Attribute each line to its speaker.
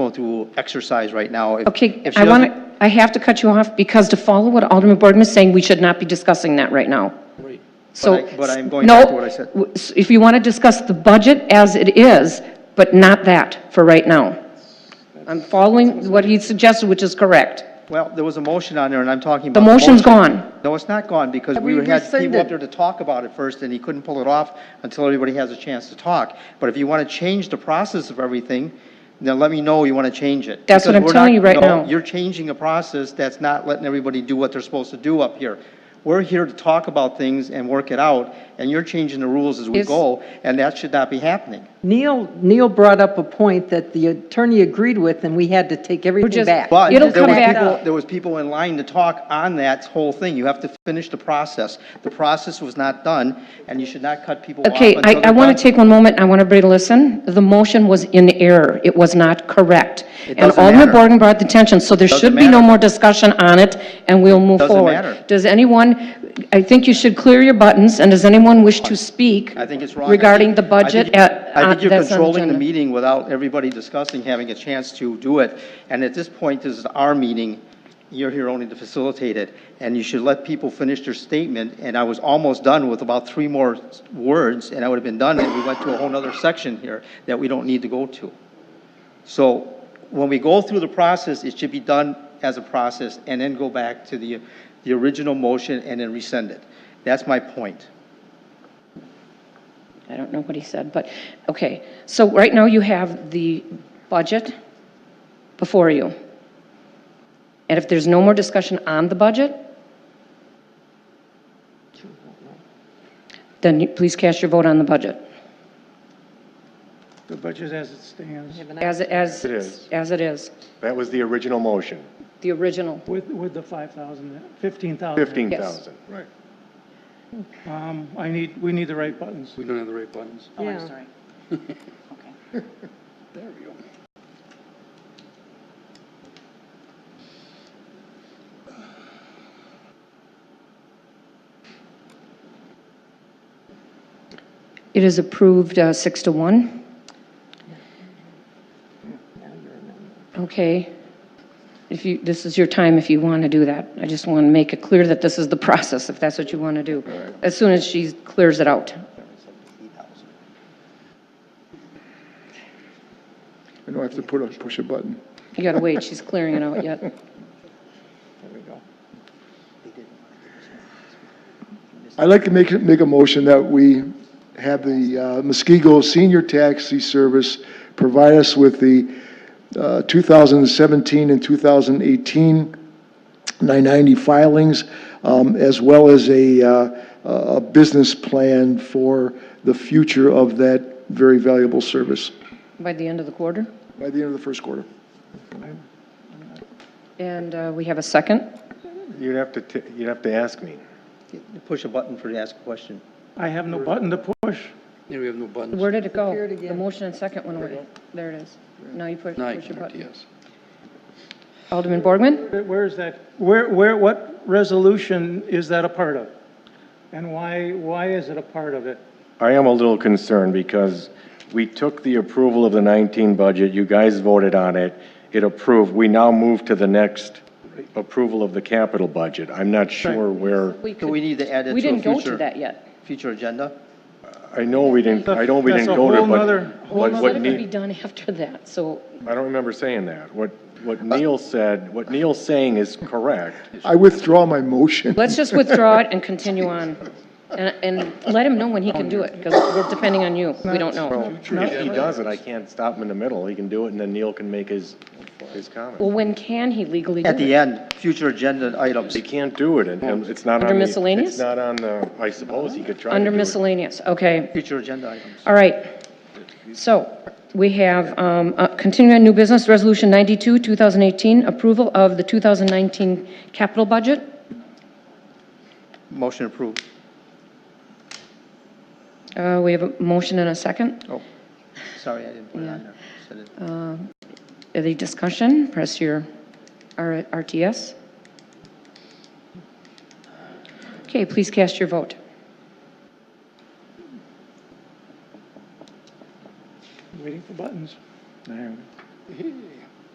Speaker 1: going through exercise right now. If-
Speaker 2: Okay,
Speaker 1: if she
Speaker 2: I want
Speaker 1: doesn't-
Speaker 2: to, I have to cut you off because to follow what Alderman Boardman is saying, we should not be discussing that right now. So.
Speaker 1: But I- but I'm going back to what I said.
Speaker 2: No, w- s- if you want to discuss the budget as it is, but not that for right now. I'm following what he suggested, which is correct.
Speaker 1: Well, there was a motion on there, and I'm talking
Speaker 2: The
Speaker 1: about.
Speaker 2: motion's
Speaker 1: motion.
Speaker 2: gone.
Speaker 1: No, it's not gone, because we
Speaker 3: We
Speaker 1: had people up
Speaker 3: rescinded.
Speaker 1: there to talk about it first, and he couldn't pull it off until everybody has a chance to talk. But if you want to change the process of everything, then let me know you want to change it.
Speaker 2: That's what
Speaker 1: Because
Speaker 2: I'm
Speaker 1: we're
Speaker 2: telling
Speaker 1: not-
Speaker 2: you right
Speaker 1: no,
Speaker 2: now.
Speaker 1: You're changing a process that's not letting everybody do what they're supposed to do up here. We're here to talk about things and work it out, and you're changing the rules as we
Speaker 2: Is-
Speaker 1: go, and that should not be happening.
Speaker 3: Neil, Neil brought up a point that the attorney agreed with, and we had to take everything
Speaker 2: just-
Speaker 3: back.
Speaker 1: But
Speaker 2: It'll
Speaker 1: there
Speaker 2: come
Speaker 1: was
Speaker 2: back
Speaker 1: people-
Speaker 2: up.
Speaker 1: There was people in line to talk on that whole thing. You have to finish the process. The process was not done, and you should not cut people off
Speaker 2: Okay,
Speaker 1: until
Speaker 2: I, I
Speaker 1: they're
Speaker 2: want
Speaker 1: done.
Speaker 2: to take one moment, I want everybody to listen. The motion was in error, it was not correct. And
Speaker 1: doesn't
Speaker 2: Alderman
Speaker 1: matter.
Speaker 2: Boardman brought the attention, so there
Speaker 1: Doesn't
Speaker 2: should be no
Speaker 1: matter.
Speaker 2: more discussion on it, and we'll move
Speaker 1: Doesn't
Speaker 2: forward.
Speaker 1: matter.
Speaker 2: Does anyone, I think you should clear your buttons, and does anyone wish to speak
Speaker 1: I think it's wrong. I
Speaker 2: regarding
Speaker 1: think-
Speaker 2: the
Speaker 1: I think-
Speaker 2: budget uh, at,
Speaker 1: I
Speaker 2: on-
Speaker 1: think you're
Speaker 2: that's on the
Speaker 1: controlling the
Speaker 2: agenda?
Speaker 1: meeting without everybody discussing, having a chance to do it. And at this point, this is our meeting. You're here only to facilitate it. And you should let people finish their statement. And I was almost done with about three more s- words, and I would have been done, and we went to a whole nother section here that we don't need to go to. So when we go through the process, it should be done as a process and then go back to the, the original motion and then rescind it. That's my point.
Speaker 2: I don't know what he said, but, okay. So right now you have the budget before you. And if there's no more discussion on the budget, then you- please cast your vote on the budget.
Speaker 4: The budget as it stands,
Speaker 2: As, as,
Speaker 5: It is.
Speaker 2: as it is,
Speaker 5: That was the original motion,
Speaker 2: the original.
Speaker 4: with, with the 5,000, 15,000.
Speaker 5: 15,000. Right.
Speaker 4: Um, I need, we need the right buttons.
Speaker 6: We don't have the right buttons.
Speaker 3: Yeah.
Speaker 2: It is approved uh, six to one. Okay. If you, this is your time if you want to do that. I just want to make it clear that this is the process, if that's what you want to do, as soon as she clears it out.
Speaker 7: We don't have to put a, push a button.
Speaker 2: You got to wait, she's clearing it out yet.
Speaker 7: I'd like to make, make a motion that we have the uh, Muskego Senior Taxi Service provide us with the uh, 2017 and 2018 990 filings, um, as well as a, uh, a business plan for the future of that very valuable service
Speaker 2: By the end of the quarter?
Speaker 7: by the end of the first quarter.
Speaker 2: And uh, we have a second?
Speaker 5: You'd have to, t- you'd have to ask me.
Speaker 1: Push a button for the ask a question.
Speaker 4: I have no button to push.
Speaker 6: Yeah, we have no buttons.
Speaker 2: Where did it go? The motion and second went away. There it is. Now you put,
Speaker 6: Now you
Speaker 2: push your
Speaker 6: can vote
Speaker 2: button.
Speaker 6: yes.
Speaker 2: Alderman Borgman?
Speaker 4: Where- Where is that, where, where, what resolution is that a part of? And why, why is it a part of it?
Speaker 5: I am a little concerned because we took the approval of the 19 budget, you guys voted on it, it approved. We now move to the next approval of the capital budget. I'm not sure where,
Speaker 1: Do we need to add it
Speaker 2: We
Speaker 1: to a
Speaker 2: didn't go to
Speaker 1: future,
Speaker 2: that yet.
Speaker 1: future agenda?
Speaker 5: I know we didn't, I know we
Speaker 4: That's a
Speaker 5: didn't go to,
Speaker 4: whole nother-
Speaker 5: but,
Speaker 4: whole
Speaker 5: but
Speaker 2: What
Speaker 4: nother-
Speaker 5: what
Speaker 2: could be
Speaker 5: Neil,
Speaker 2: done after that? So
Speaker 5: I don't remember saying that. What, what Neil said, what Neil's saying is correct.
Speaker 7: I withdraw my motion.
Speaker 2: let's just withdraw it and continue on. And, and let him know when he can do it, because we're depending on you. We don't know.
Speaker 5: If he does it, I can't stop him in the middle. He can do it, and then Neil can make his, his comment.
Speaker 2: Well, when can he legally
Speaker 1: At
Speaker 2: do
Speaker 1: the
Speaker 2: it?
Speaker 1: end, future agenda items.
Speaker 5: He can't do it, and- and it's not on the...
Speaker 2: Under miscellaneous?
Speaker 5: It's not on the, I suppose he could try to
Speaker 2: Under
Speaker 5: do it.
Speaker 2: miscellaneous, okay.
Speaker 1: Future agenda items.
Speaker 2: All right. So we have, um, uh, continuing new business, Resolution 92, 2018, approval of the 2019 capital budget.
Speaker 1: Motion approved.
Speaker 2: Uh, we have a motion and a second.
Speaker 1: Oh, sorry, I didn't put it on there. Said it.
Speaker 2: Any discussion? Press your R- RTS. Okay, please cast your vote.
Speaker 4: Waiting for buttons.